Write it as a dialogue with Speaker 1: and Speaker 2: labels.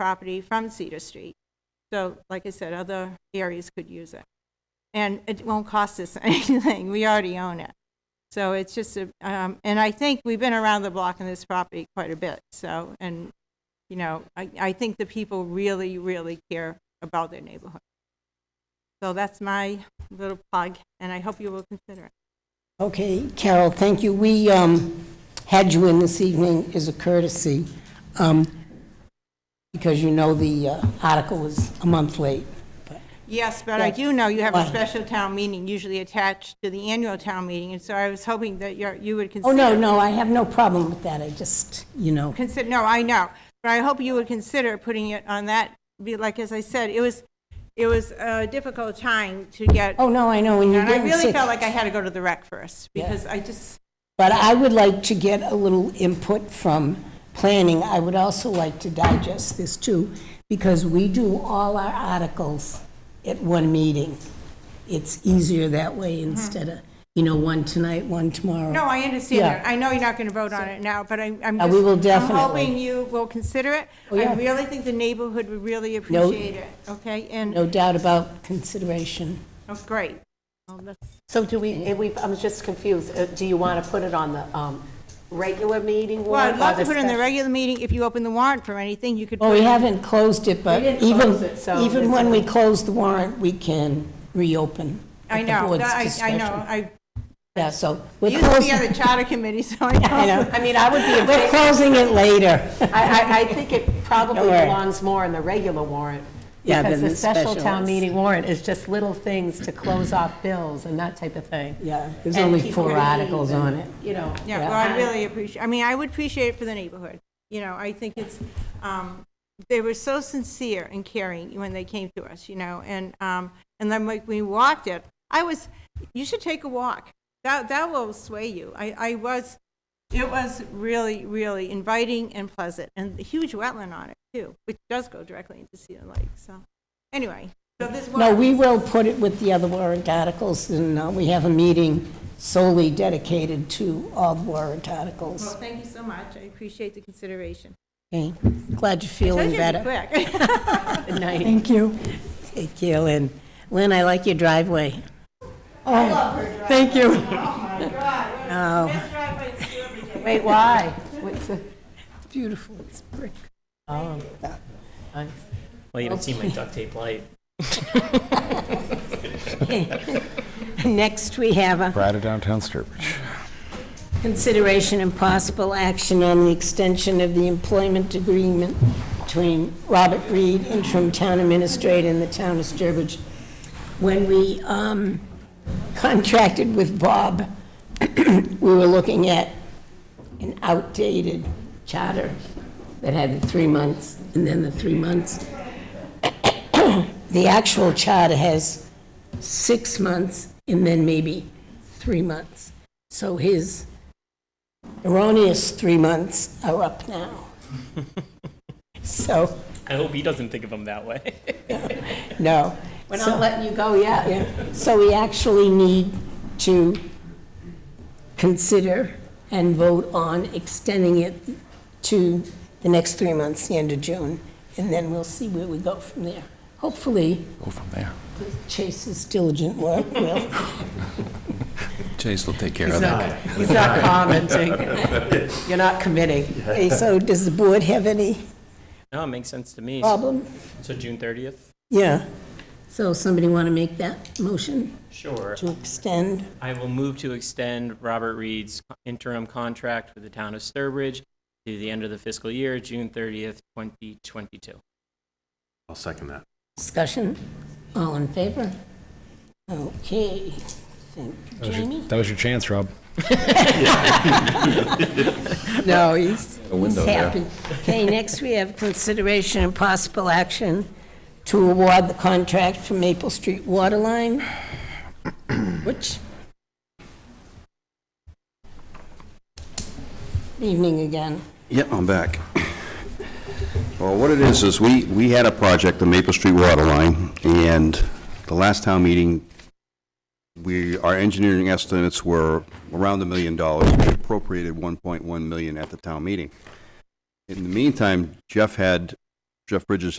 Speaker 1: property from Cedar Street. So, like I said, other areas could use it. And it won't cost us anything, we already own it. So it's just, a um, and I think we've been around the block on this property quite a bit, so, and, you know, I, I think the people really, really care about their neighborhood. So that's my little plug, and I hope you will consider it.
Speaker 2: Okay, Carol, thank you. We um, had you in this evening as a courtesy, um, because you know the uh, article is a month late. but-
Speaker 1: Yes, but I do
Speaker 2: Yes.
Speaker 1: know you have a
Speaker 2: Why?
Speaker 1: special town meeting usually attached to the annual town meeting, and so I was hoping that you're, you would
Speaker 2: Oh,
Speaker 1: consider.
Speaker 2: no, no, I have no problem with that, I just, you know,
Speaker 1: Consider, no, I know, but I hope you would consider putting it on that, be, like, as I said, it was, it was a difficult time to get,
Speaker 2: oh, no, I know, and you
Speaker 1: and I
Speaker 2: didn't
Speaker 1: really
Speaker 2: say.
Speaker 1: felt like I had to go to the rec first, because I just,
Speaker 2: But I would like to get a little input from planning. I would also like to digest this too, because we do all our articles at one meeting. It's easier that way instead of, you know, one tonight, one tomorrow.
Speaker 1: Mm-hmm. no, I understand
Speaker 2: Yeah.
Speaker 1: that, I know you're not gonna vote on it now, but I, I'm
Speaker 2: Uh,
Speaker 1: just.
Speaker 2: we will
Speaker 1: I'm
Speaker 2: definitely.
Speaker 1: hoping you will consider it,
Speaker 2: Oh, yeah.
Speaker 1: I really think the neighborhood would really appreciate it, okay, and,
Speaker 2: No doubt about consideration.
Speaker 1: oh, great. Well, that's-
Speaker 3: So do we, if we, I'm just confused, Uh, do you want to put it on the um, regular meeting
Speaker 1: Well,
Speaker 3: warrant?
Speaker 1: I'd
Speaker 3: or
Speaker 1: love to put in the
Speaker 3: special-
Speaker 1: regular meeting, if you open the warrant for anything, you could.
Speaker 2: Well,
Speaker 1: put
Speaker 2: Oh, we
Speaker 1: it-
Speaker 2: haven't closed it, but
Speaker 3: We didn't
Speaker 2: even,
Speaker 3: close it, so
Speaker 2: even
Speaker 3: it's-
Speaker 2: when we close the warrant, we can reopen
Speaker 1: I
Speaker 2: at the
Speaker 1: know,
Speaker 2: board's
Speaker 1: that- I, I
Speaker 2: discretion.
Speaker 1: know, I
Speaker 2: Yeah, so we're
Speaker 1: used to be on
Speaker 2: closing,
Speaker 1: the charter committee, so I know.
Speaker 2: I know,
Speaker 3: I mean, I would be, in
Speaker 2: we're
Speaker 3: fa-
Speaker 2: closing it later.
Speaker 3: I, I, I think it probably
Speaker 2: Don't worry.
Speaker 3: belongs more in the regular warrant.
Speaker 2: Yeah,
Speaker 3: Because
Speaker 2: than
Speaker 3: the
Speaker 2: the
Speaker 3: special
Speaker 2: special
Speaker 3: town
Speaker 2: ones.
Speaker 3: meeting warrant is just little things to close off bills and that type of thing.
Speaker 2: Yeah, there's
Speaker 3: And
Speaker 2: only
Speaker 3: people
Speaker 2: four
Speaker 3: leave
Speaker 2: articles
Speaker 3: and,
Speaker 2: on it.
Speaker 3: You know.
Speaker 1: Yeah, well, I really appreciate, I mean, I would appreciate it for the neighborhood. You know, I think it's, um, they were so sincere and caring when they came to us, you know, and, um, and then like we walked it, I was, you should take a walk. That, that will sway you. I, I was, it was really, really inviting and pleasant, and a huge wetland on it too, which does go directly into Cedar Lake, so. Anyway, so this
Speaker 2: No,
Speaker 1: was,
Speaker 2: we will put it with the other warrant articles, and uh, we have a meeting solely dedicated to all the warrant
Speaker 1: well,
Speaker 2: articles.
Speaker 1: thank you so much. I appreciate the consideration.
Speaker 2: Okay, glad
Speaker 1: I
Speaker 2: you're
Speaker 1: told
Speaker 2: feeling
Speaker 1: you it'd be
Speaker 2: better.
Speaker 1: quick.
Speaker 3: Good night.
Speaker 2: Thank you. Thank you, Lynn. Lynn, I like your driveway. Oh, thank you. Oh,
Speaker 1: Best driveway in Cedar Lake.
Speaker 3: Wait, why? What's the-
Speaker 2: beautiful, it's brick.
Speaker 3: oh, nice.
Speaker 4: Well, you don't see my duct tape light.
Speaker 2: Next, we have a
Speaker 5: Prior to downtown Sturbridge.
Speaker 2: Consideration and possible action on the extension of the employment agreement between Robert Reed, interim town administrator, and the town of Sturbridge. When we um, contracted with Bob, we were looking at an outdated charter that had the three months and then the three months. The actual charter has six months and then maybe three months. So his erroneous three months are up now. So,
Speaker 4: I hope he doesn't think of them that way.
Speaker 2: no.
Speaker 3: We're not letting you go yet.
Speaker 2: Yeah, so we actually need to consider and vote on extending it to the next three months, the end of June, and then we'll see where we go from there. Hopefully,
Speaker 5: Go from there.
Speaker 2: with Chase's diligent work will.
Speaker 5: Chase will take care of
Speaker 3: He's
Speaker 5: that.
Speaker 3: not, he's not commenting. You're not committing.
Speaker 2: Okay, so does the board have any
Speaker 4: No, it makes sense to me.
Speaker 2: problem?
Speaker 4: So June 30th?
Speaker 2: Yeah. So somebody want to make that motion
Speaker 4: Sure.
Speaker 2: to extend?
Speaker 4: I will move to extend Robert Reed's interim contract with the town of Sturbridge to the end of the fiscal year, June 30th, 2022.
Speaker 6: I'll second that.
Speaker 2: Discussion? All in favor? Okay, thank you, Jamie.
Speaker 5: That was your chance, Rob.
Speaker 2: No, he's,
Speaker 5: A window
Speaker 2: he's
Speaker 5: there.
Speaker 2: happy. Okay, next we have consideration and possible action to award the contract for Maple Street Waterline, which... Evening again.
Speaker 6: Yep, I'm back. Well, what it is, is we, we had a project, the Maple Street Water Line, and the last town meeting, we, our engineering estimates were around a million dollars. We appropriated 1.1 million at the town meeting. In the meantime, Jeff had Jeff Bridges